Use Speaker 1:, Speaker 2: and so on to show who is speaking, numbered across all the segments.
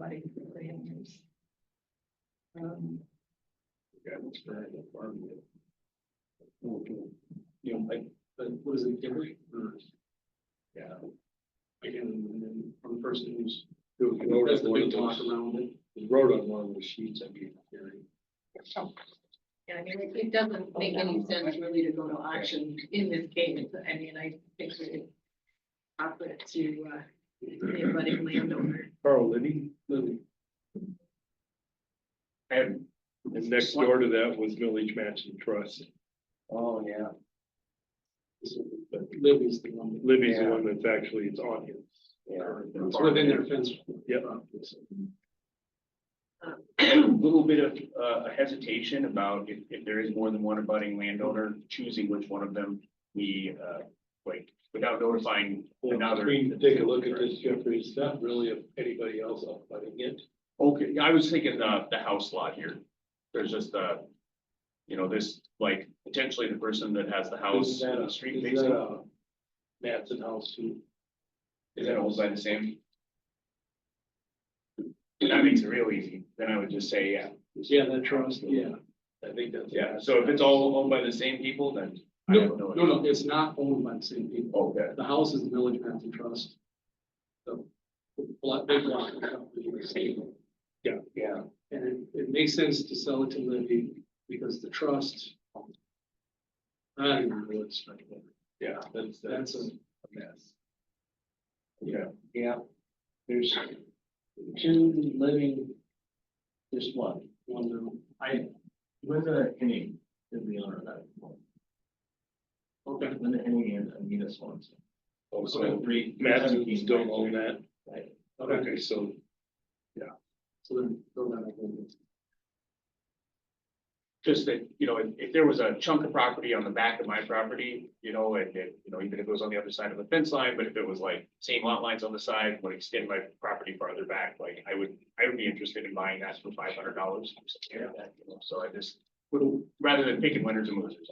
Speaker 1: body for the animals. Um,
Speaker 2: Yeah, it's very farming. You know, like, but what is it, Gary? Yeah. Again, and then from the person who's. That's the big talk around it. He wrote on one of the sheets, I mean, Gary.
Speaker 1: yeah, I mean, it, it doesn't make any sense really to go to auction in this case, I mean, I think we could offer it to, uh, the budding landowner.
Speaker 3: Carl Liddy.
Speaker 2: Lily,
Speaker 3: And, and next door to that was Village Mansion Trust.
Speaker 4: Oh, yeah.
Speaker 2: but Lily's the one.
Speaker 3: Libby's the
Speaker 4: Yeah.
Speaker 3: one that's actually, it's on his.
Speaker 4: Yeah.
Speaker 2: It's within their fence.
Speaker 3: Yep.
Speaker 4: A little bit of uh, a hesitation about if, if there is more than one abutting landowner, choosing which one of them we, uh, like, without notifying
Speaker 2: I
Speaker 4: another.
Speaker 2: mean, take a look at this, Jeffrey, it's not really anybody else up by it.
Speaker 4: Okay, I was thinking uh the house lot here. There's just uh you know, this, like, potentially the person that has the house,
Speaker 2: Is that
Speaker 4: and
Speaker 2: a-
Speaker 4: the street
Speaker 2: Is that
Speaker 4: facing.
Speaker 2: a Matson house too?
Speaker 4: Is that owned by the same? That makes it real easy. Then I would just say, yeah,
Speaker 2: Yeah, that trust, yeah, I think that's.
Speaker 4: yeah. So if it's all owned by the same people, then I
Speaker 2: No,
Speaker 4: don't know.
Speaker 2: no, no, it's not owned by the same people.
Speaker 4: Okay.
Speaker 2: The house is Village Mansion Trust. So, block, big block. of property is same.
Speaker 4: Yeah,
Speaker 2: And it, it makes sense to sell it to Libby because the trust. I don't even really expect that.
Speaker 3: Yeah, that's,
Speaker 2: That's a
Speaker 3: mess.
Speaker 5: Yeah, there's two living, just one.
Speaker 2: one, no.
Speaker 5: I, Linda Henning is the owner of that one.
Speaker 2: Okay.
Speaker 5: Linda Henning and Anita Swanson.
Speaker 3: Also,
Speaker 5: three.
Speaker 3: Matt's don't own that.
Speaker 2: Okay,
Speaker 3: Okay, so
Speaker 2: so then, throw that out there.
Speaker 4: just that, you know, if, if there was a chunk of property on the back of my property, you know, and it, you know, even if it was on the other side of the fence line, but if it was like same lot lines on the side, would extend my property farther back, like I would, I would be interested in buying that for five hundred dollars. So I just, would rather than picking winners and losers.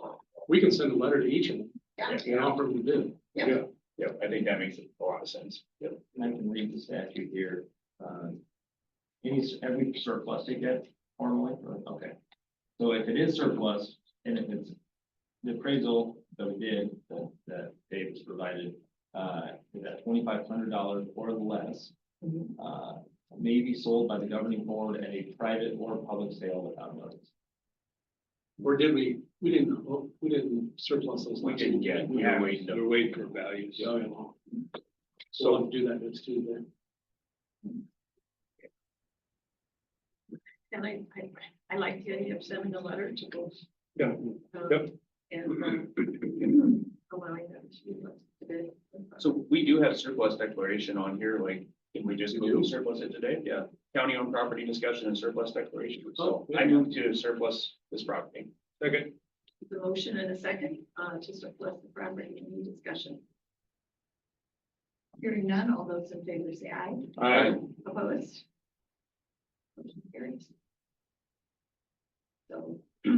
Speaker 2: We can send a letter to each of them.
Speaker 1: Yeah.
Speaker 2: And offer them to do.
Speaker 4: Yeah, I think that makes a lot of sense. Yep.
Speaker 5: And I can read the statute here. Um, Any, s- every surplus they get formally, or- okay. So if it is surplus, and if it's the appraisal that we did, that, that Davis provided, uh, is at twenty-five hundred dollars or less,
Speaker 1: Mhm.
Speaker 5: uh, may be sold by the governing board at a private or public sale without notice.
Speaker 2: Or did we, we didn't, oh, we didn't surplus those.
Speaker 4: We
Speaker 2: last
Speaker 4: didn't
Speaker 2: year.
Speaker 4: get, we
Speaker 2: Yeah.
Speaker 4: were waiting. to-
Speaker 3: we're waiting for values.
Speaker 2: Yeah, yeah. So I'll do that next Tuesday.
Speaker 1: And I, I, I like the idea of sending a letter to both.
Speaker 3: Yeah.
Speaker 1: um,
Speaker 3: Yep.
Speaker 1: And, um, allowing them to be listed.
Speaker 4: So we do have surplus declaration on here, like, can we just
Speaker 2: We do?
Speaker 4: move surplus it today? Yeah, county owned property discussion and surplus declaration. So
Speaker 2: Oh, yeah.
Speaker 4: I move to surplus this property.
Speaker 3: Second,
Speaker 1: The motion and a second, uh, to surplus the property, any discussion? Hearing none, all those in favor say aye.
Speaker 3: Aye.
Speaker 1: Opposed? Motion carries. So.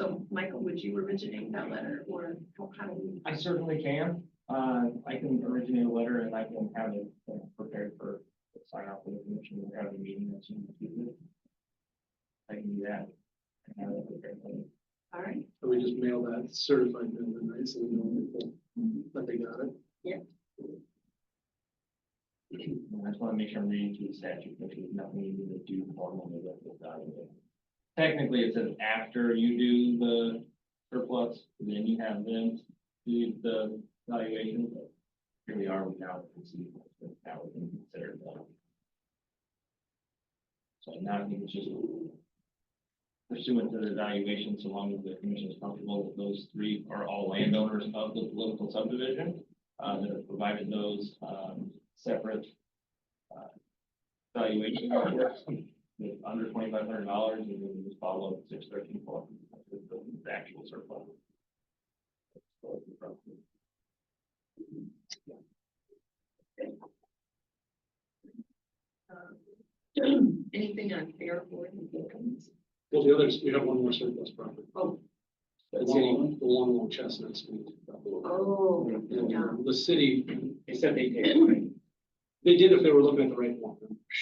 Speaker 1: So, Michael, would you originate that letter or how how do we?
Speaker 5: I certainly can. Uh, I can originate a letter and I can have it uh, prepared for sign off with the commission. We're having a meeting that's in the future. I can do that. and have it prepared for you.
Speaker 1: All right,
Speaker 2: So we just mail that certified bill tonight, so we know
Speaker 1: Mm-hmm.
Speaker 2: that they got it.
Speaker 5: And I just want to make sure I'm reading through the statute, which is nothing you need to do formally with the document. Technically, it says after you do the surplus, then you have them do the valuation. but Here we are without proceeding, that would be considered. one. So now I think it's just pursuant to the valuation, so long as the commission is comfortable that those three are all landowners of the political subdivision. Uh, that have provided those, um, separate uh, valuation reports with under twenty-five hundred dollars, and then just follow up six thirteen four, the actual surplus.
Speaker 1: um, anything on fair board and buildings?
Speaker 2: Well, the others, we have one more surplus property.
Speaker 1: Oh.
Speaker 2: The one, the one along Chestnut Street. uh,
Speaker 1: Oh, yeah.
Speaker 2: The city,
Speaker 4: They said they paid.
Speaker 2: they did if they were looking at the right one.